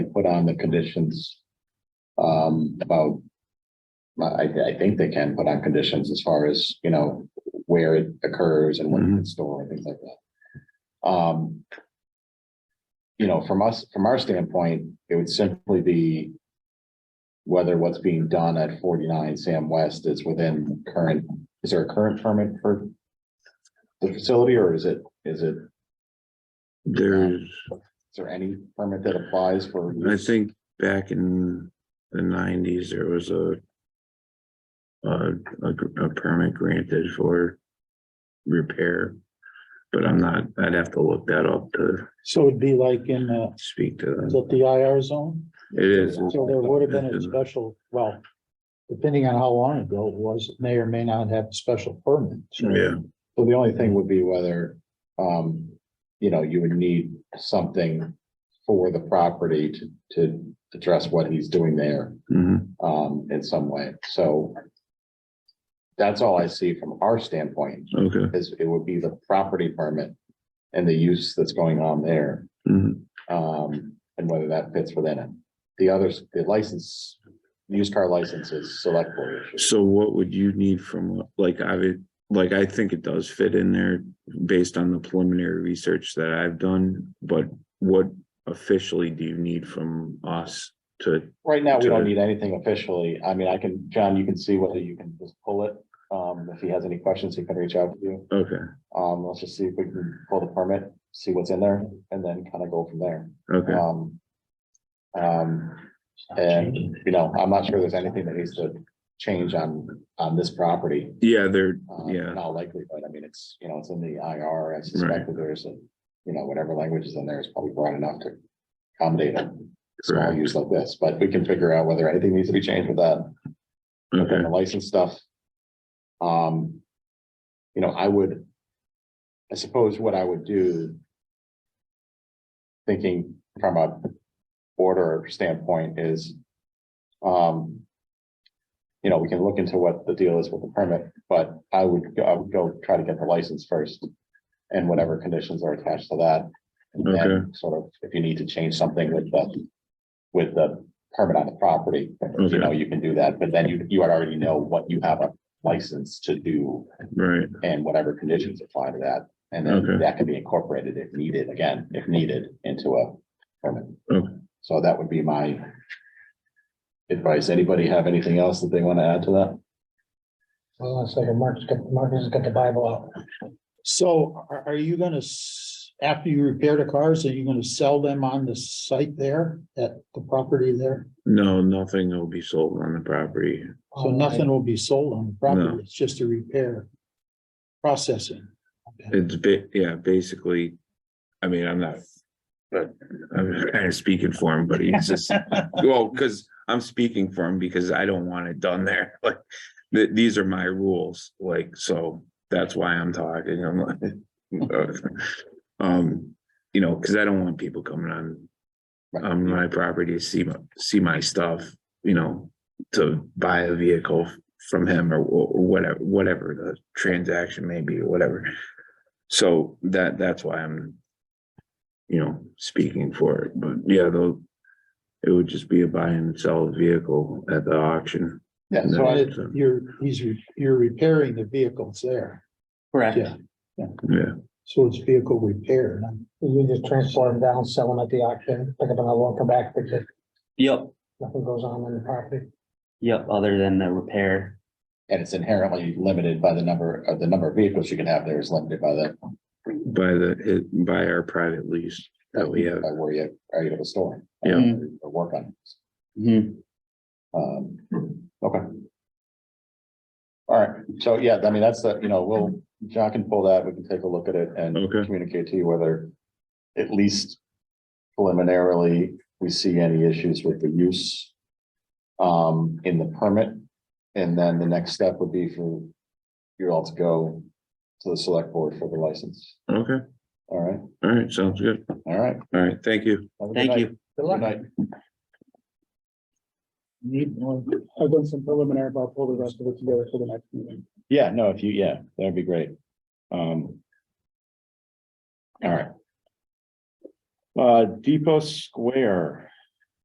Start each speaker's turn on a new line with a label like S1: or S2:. S1: put on the conditions. Um, about. I, I think they can put on conditions as far as, you know, where it occurs and when it's stored, things like that. Um. You know, from us, from our standpoint, it would simply be. Whether what's being done at forty-nine Sam West is within current, is there a current permit for? The facility or is it, is it, is
S2: There's,
S1: there any permit that applies for?
S2: I think back in the nineties, there was a a, a gr- a permit granted for repair, but I'm not, I'd have to look that up to
S3: So it'd be like in, uh,
S2: speak to
S3: is
S2: them.
S3: it the IR zone?
S2: It is,
S3: So there would have been a special, well, depending on how long ago it was, it may or may not have a special permit. So
S2: yeah,
S1: So the only thing would be whether, um, you know, you would need something for the property to, to address what he's doing there,
S2: mhm,
S1: um, in some way, so. That's all I see from our standpoint,
S2: okay.
S1: is it would be the property permit and the use that's going on there,
S2: mhm,
S1: um, and whether that fits within it. The others, the license, used car licenses, select board issue.
S2: So what would you need from, like, I would, like, I think it does fit in there based on the preliminary research that I've done, but what officially do you need from us to
S1: Right now, we don't
S2: to-
S1: need anything officially. I mean, I can, John, you can see whether you can just pull it. Um, if he has any questions, he can reach out to you.
S2: Okay,
S1: Um, let's just see if we can pull the permit, see what's in there and then kind of go from there.
S2: okay,
S1: Um. um, and, you know, I'm not sure there's anything that needs to change on, on this property.
S2: yeah, there,
S1: Um,
S2: yeah,
S1: Not likely, but I mean, it's, you know, it's in the IR. I suspect that there's a, you know, whatever language is in there is probably broad enough to accommodate it small
S2: correct,
S1: use like this, but we can figure out whether anything needs to be changed with that, and
S2: okay,
S1: the license stuff. Um, you know, I would, I suppose what I would do, thinking from a order standpoint is, um, you know, we can look into what the deal is with the permit, but I would, go- I would go try to get the license first and whatever conditions are attached to that. And then sort of, if you need to change something with the, with the permit on the property, you
S2: Okay.
S1: know, you can do that, but then you, you would already know what you have a license to do
S2: right,
S1: and whatever conditions apply to that. And then
S2: Okay.
S1: that can be incorporated if needed, again, if needed, into a permit.
S2: Okay.
S1: So that would be my advice. Anybody have anything else that they want to add to that?
S4: Hold on a second, Mark's got, Mark has got the Bible out.
S3: So are, are you gonna, s- after you repair the cars, are you gonna sell them on the site there, at the property there?
S2: no, nothing will be sold on the property,
S3: So nothing will be sold on the
S2: No.
S3: property, it's just a repair processing.
S2: it's bit, yeah, basically, I mean, I'm not. But I'm kind of speaking for him, but he's just, well, because I'm speaking for him because I don't want it done there, like. Th- these are my rules, like, so that's why I'm talking, I'm like. Um, you know, because I don't want people coming on on my property to see my, see my stuff, you know, to buy a vehicle f- from him or, wh- or whatever, whatever the transaction may be, or whatever. So that, that's why I'm, you know, speaking for it, but yeah, though, it would just be a buy and sell vehicle at the auction.
S1: Yeah,
S2: so
S1: so
S2: I-
S1: I,
S3: It- You're, he's, re- you're repairing the vehicles there,
S1: correct.
S3: Yeah.
S2: Yeah,
S3: so it's vehicle repair, not
S4: You just transport them down, sell them at the auction, pick up another one, come back, fix it,
S5: Yep,
S4: nothing goes on on the property.
S5: yep, other than the repair.
S1: And it's inherently limited by the number, uh, the number of vehicles you can have there is limited by the,
S2: by the, it- by our private lease that we have.
S1: by where you are able to store. it,
S2: Yeah.
S5: Mhm.
S1: Or work on. it.
S5: Mhm.
S1: Um, okay. All right, so yeah, I mean, that's the, you know, we'll, John can pull that, we can take a look at it and
S2: Okay.
S1: communicate to you whether at least preliminarily, we see any issues with the use um, in the permit. And then the next step would be for you all to go to the select board for the license.
S2: Okay,
S1: All right,
S2: all right, sounds good.
S1: all right.
S2: All right, thank you.
S1: Have a good
S5: Thank
S1: night.
S5: you.
S4: Good
S1: Good
S4: luck.
S1: night.
S6: Need one. I've done some preliminary, but I'll pull the rest of it together for the next meeting.
S1: Yeah, no, if you, yeah, that'd be great. Um. All right. Uh, Depot Square,